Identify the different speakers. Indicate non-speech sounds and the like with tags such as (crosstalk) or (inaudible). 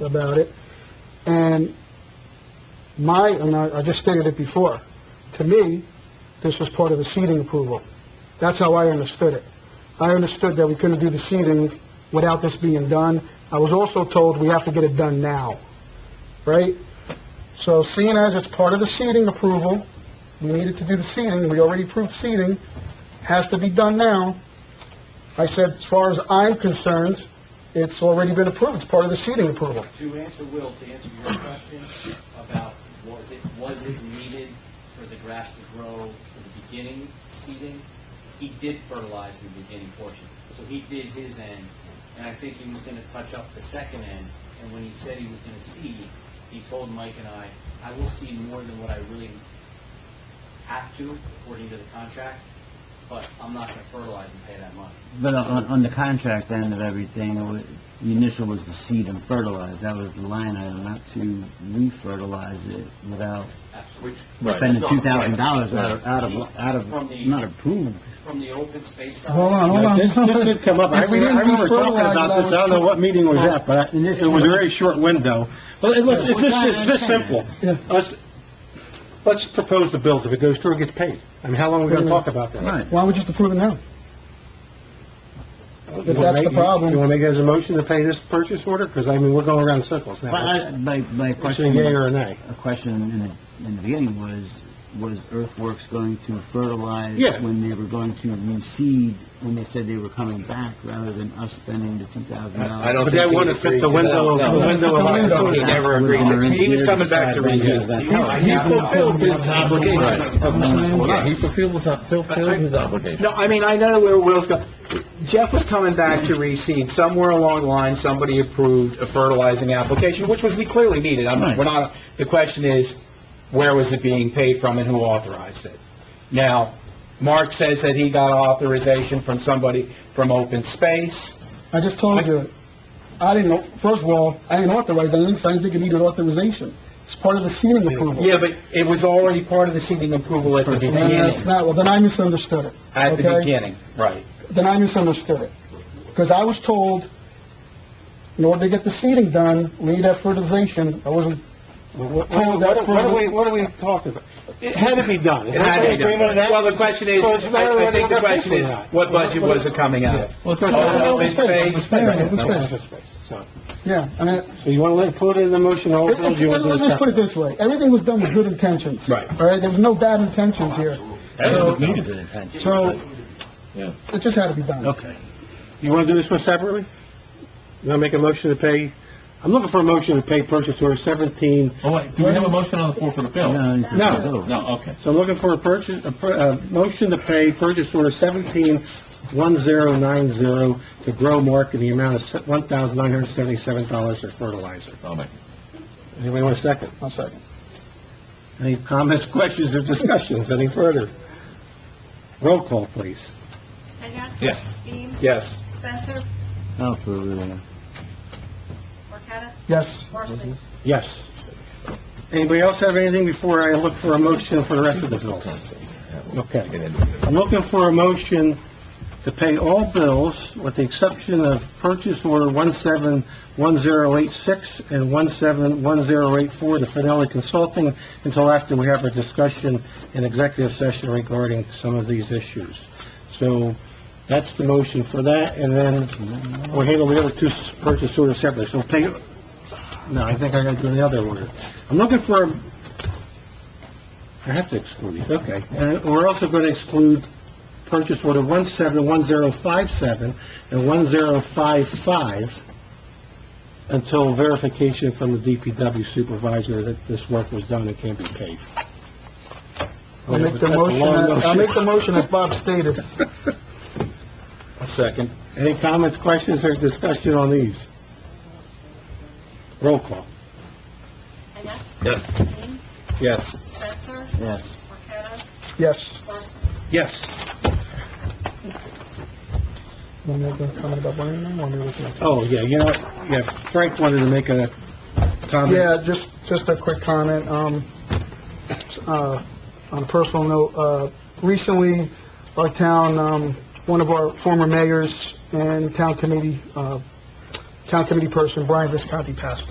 Speaker 1: about it. And my, and I I just stated it before, to me, this was part of the seeding approval. That's how I understood it. I understood that we couldn't do the seeding without this being done. I was also told we have to get it done now, right? So seeing as it's part of the seeding approval, we needed to do the seeding, we already approved seeding, has to be done now. I said, as far as I'm concerned, it's already been approved, it's part of the seeding approval.
Speaker 2: To answer Will, to answer your question about was it, was it needed for the grass to grow for the beginning seeding? He did fertilize in the beginning portion, so he did his end, and I think he was gonna touch up the second end, and when he said he was gonna seed, he told Mike and I, I will seed more than what I really have to according to the contract, but I'm not gonna fertilize and pay that money.
Speaker 3: But on, on the contract end of everything, it wa- the initial was to seed and fertilize, that was the line item, not to re-fertilize it without
Speaker 2: Absolutely.
Speaker 3: spending
Speaker 2: No,
Speaker 3: two thousand dollars out of,
Speaker 2: right.
Speaker 3: out of, out
Speaker 2: From
Speaker 3: of,
Speaker 2: the-
Speaker 3: not approved.
Speaker 2: From the open space side.
Speaker 1: Hold on, hold
Speaker 4: Now,
Speaker 1: on.
Speaker 4: This, this did come up,
Speaker 1: (laughs)
Speaker 4: I
Speaker 1: If we didn't
Speaker 4: I remember talking
Speaker 1: defertilize,
Speaker 4: about this, I don't know what meeting it was at, but I- it was a very short window. Well, it was- it's just, it's this simple.
Speaker 1: Yeah.
Speaker 4: Let's, let's propose the bills, if it goes through, it gets paid. I mean, how long are we gonna talk about that?
Speaker 3: Right.
Speaker 1: Why don't we just approve it now?
Speaker 4: You
Speaker 1: If
Speaker 4: wanna
Speaker 1: that's
Speaker 4: make-
Speaker 1: the problem.
Speaker 4: You wanna make it as a motion to pay this purchase order? Because, I mean, we're going around in circles
Speaker 3: But I,
Speaker 4: now.
Speaker 3: my, my
Speaker 4: Question a yea
Speaker 3: question,
Speaker 4: or a nay?
Speaker 3: a question in the, in the beginning was, was Earthworks going to fertilize
Speaker 4: Yeah.
Speaker 3: when they were going to reseed, when they said they were coming back, rather than us spending the two thousand dollars?
Speaker 5: I don't
Speaker 4: But that
Speaker 5: think he
Speaker 4: wouldn't fit
Speaker 5: agreed
Speaker 4: the
Speaker 5: to
Speaker 4: window
Speaker 5: that.
Speaker 4: of, the
Speaker 5: No.
Speaker 4: window of
Speaker 1: He
Speaker 5: (laughs)
Speaker 4: opportunity.
Speaker 5: He never agreed to it. He was coming back to resume.
Speaker 4: He fulfilled his obligation.
Speaker 5: Yeah, he fulfilled his, fulfilled his obligation.
Speaker 6: No, I mean, I know where Will's going. Jeff was coming back to reseed. Somewhere along the line, somebody approved a fertilizing application, which was clearly needed. I'm,
Speaker 3: Right.
Speaker 6: we're not, the question is, where was it being paid from and who authorized it? Now, Mark says that he got authorization from somebody from Open Space.
Speaker 1: I just told you, I didn't, know- first of all, I didn't authorize anything, because I didn't think it needed authorization. It's part of the seeding approval.
Speaker 6: Yeah, but it was already part of the seeding approval at the
Speaker 1: No, no, it's
Speaker 6: beginning.
Speaker 1: not, well, then I misunderstood it.
Speaker 6: At the
Speaker 1: okay?
Speaker 6: beginning, right.
Speaker 1: Then I misunderstood it. Because I was told, in order to get the seeding done, we need that fertilization. I wasn't,
Speaker 4: What what- what are we, what are we talking about? It had to be done. Is
Speaker 6: It had to
Speaker 4: that the
Speaker 6: be done.
Speaker 4: agreement of that?
Speaker 6: Well, the question is,
Speaker 4: So it's a matter of
Speaker 6: I I think
Speaker 4: whether
Speaker 6: the
Speaker 4: we're gonna
Speaker 6: question
Speaker 4: pay
Speaker 6: is,
Speaker 4: for that.
Speaker 6: what budget was it coming out of?
Speaker 1: well, it's
Speaker 6: Open
Speaker 1: not,
Speaker 6: space.
Speaker 1: it's fair, it's fair.
Speaker 4: Open space, so.
Speaker 1: yeah, I mean,
Speaker 4: So you want to include it in the motion, or
Speaker 1: It-
Speaker 4: do
Speaker 1: it's-
Speaker 4: you want to do
Speaker 1: Let's
Speaker 4: it
Speaker 1: just put
Speaker 4: separate?
Speaker 1: it this way, everything was done with good intentions.
Speaker 4: Right.
Speaker 1: All right, there was no bad intentions here.
Speaker 3: That was
Speaker 1: So-
Speaker 3: needed to the intention.
Speaker 1: So,
Speaker 5: Yeah.
Speaker 1: it just had to be done.
Speaker 4: Okay. You want to do this one separately? You want to make a motion to pay, I'm looking for a motion to pay purchase order 17,
Speaker 5: Oh, wait, do we have a motion on the floor for the bill?
Speaker 3: No, it's-
Speaker 4: No.
Speaker 5: No, okay.
Speaker 4: so I'm looking for a purchase, a, pur- a motion to pay purchase order 171090 to Grow Mark in the amount of se- $1,977 for fertilizer.
Speaker 5: I'll make
Speaker 4: Anybody want a second?
Speaker 1: One second.
Speaker 4: Any comments, questions, or discussions, any further? Roll call, please.
Speaker 7: Hagan?
Speaker 5: Yes.
Speaker 7: Dean?
Speaker 6: Yes.
Speaker 7: Spencer?
Speaker 3: Oh, for, uh,
Speaker 7: Marqueta?
Speaker 1: Yes.
Speaker 7: Horsley?
Speaker 4: Yes. Anybody else have anything before I look for a motion for the rest of the bills? Okay. I'm looking for a motion to pay all bills with the exception of purchase order 171086 and 171084 to Finelli Consulting until after we have a discussion in executive session regarding some of these issues. So that's the motion for that, and then we'll handle the other two s- purchase orders separately. So pay, no, I think I gotta do the other order. I'm looking for, a- I have to exclude these, okay. And we're also gonna exclude purchase order 171057 and 1055 until verification from the DPW supervisor that this work was done and can be paid.
Speaker 1: I'll make the
Speaker 4: That's a long
Speaker 1: motion, I'll
Speaker 4: motion. uh,
Speaker 1: make the
Speaker 4: (laughs)
Speaker 1: motion as Bob stated.
Speaker 6: Second.
Speaker 4: Any comments, questions, or discussion on these? Roll call.
Speaker 7: Hagan?
Speaker 5: Yes.
Speaker 7: Dean?
Speaker 6: Yes.
Speaker 7: Spencer?
Speaker 3: yes.
Speaker 7: Marqueta?
Speaker 1: Yes.
Speaker 7: Horsley?
Speaker 4: Yes.
Speaker 1: Want to make a comment about Brian now, or maybe it's not?
Speaker 4: Oh, yeah, you know, what? yeah, Frank wanted to make a comment.
Speaker 1: Yeah, just, just a quick comment, um, uh, on a personal note, uh, recently, our town, um, one of our former mayors and town committee, uh, town committee person, Brian Visconti, passed